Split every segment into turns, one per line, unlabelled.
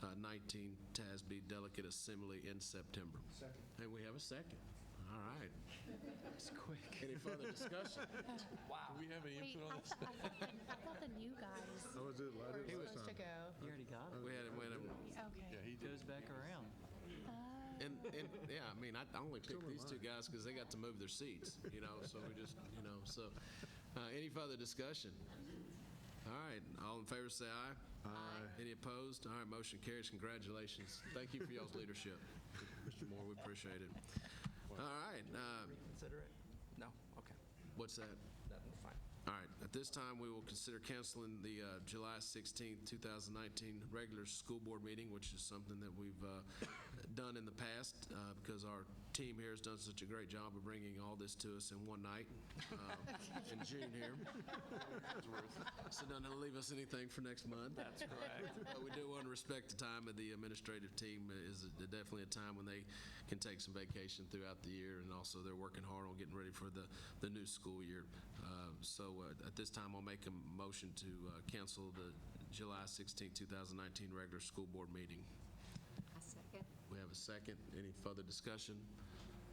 2019 TASB Delegate Assembly in September. Second. And we have a second. All right. It's quick. Any further discussion? Wow. Do we have any
Wait,
input on
I
this?
thought, I thought- I thought the new guys
I was Oh, it, I did
We're
last
supposed to
time.
go.
You already got it.
We had, we had, a-
Okay.
It goes back around.
and, and, yeah, I mean, I I only picked these two guys because they got to move their seats, you know, so we just, you know, so. uh, Any further discussion? All right, all in favor, say aye. Aye. Any opposed? All right, motion carries. Congratulations. Thank you for y'all's leadership, Mr. Moore, we appreciate it. All right, uh,
Consider it? No? Okay.
what's that?
That's fine.
All right, at this time, we will consider canceling the uh, July 16, 2019 regular school board meeting, which is something that we've uh, done in the past uh, because our team here has done such a great job of bringing all this to us in one night uh, in June here. So don't leave us anything for next month. That's correct. But Uh, we do want to respect the time of the administrative team. It is definitely a time when they can take some vacation throughout the year, and also they're working hard on getting ready for the, the new school year. Uh, So uh, at this time, I'll make a motion to uh, cancel the July 16, 2019 regular school board meeting.
A second.
We have a second. Any further discussion?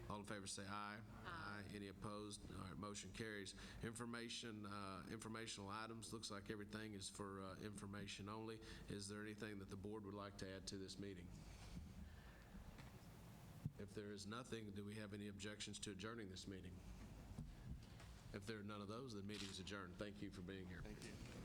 All in favor, say aye. Aye. Any opposed? All right, motion carries. Information, uh, informational items, looks like everything is for uh, information only. Is there anything that the board would like to add to this meeting? If there is nothing, do we have any objections to adjourning this meeting? If there are none of those, the meeting is adjourned. Thank you for being here. Thank you.